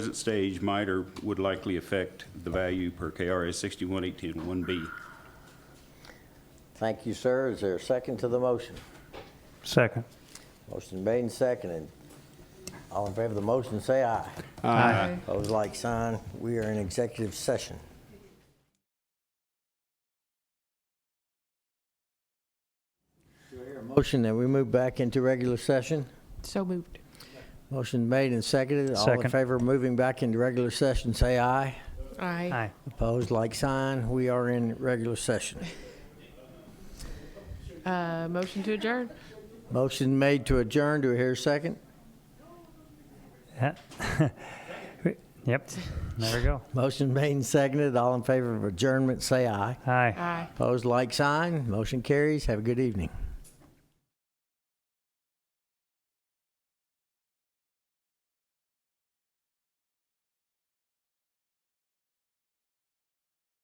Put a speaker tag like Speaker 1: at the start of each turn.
Speaker 1: present stage might or would likely affect the value per KRS 61181B.
Speaker 2: Thank you, sir. Is there a second to the motion?
Speaker 3: Second.
Speaker 2: Motion made and seconded. All in favor of the motion, say aye.
Speaker 3: Aye.
Speaker 2: Pose like sign. We are in executive session. Do I hear a Motion that we move back into regular session.
Speaker 4: So moved.
Speaker 2: Motion made and seconded. All in
Speaker 3: Second.
Speaker 2: favor of moving back into regular session, say aye.
Speaker 4: Aye.
Speaker 3: Aye.
Speaker 2: Opposed, like sign. We are in regular session.
Speaker 4: Uh, motion to adjourn.
Speaker 2: Motion made to adjourn. Do I hear a second?
Speaker 3: Yeah. Yep, there we go.
Speaker 2: Motion made and seconded. All in favor of adjournment, say aye.
Speaker 3: Aye.
Speaker 4: Aye.
Speaker 2: Opposed, like sign. Motion carries. Have a good evening.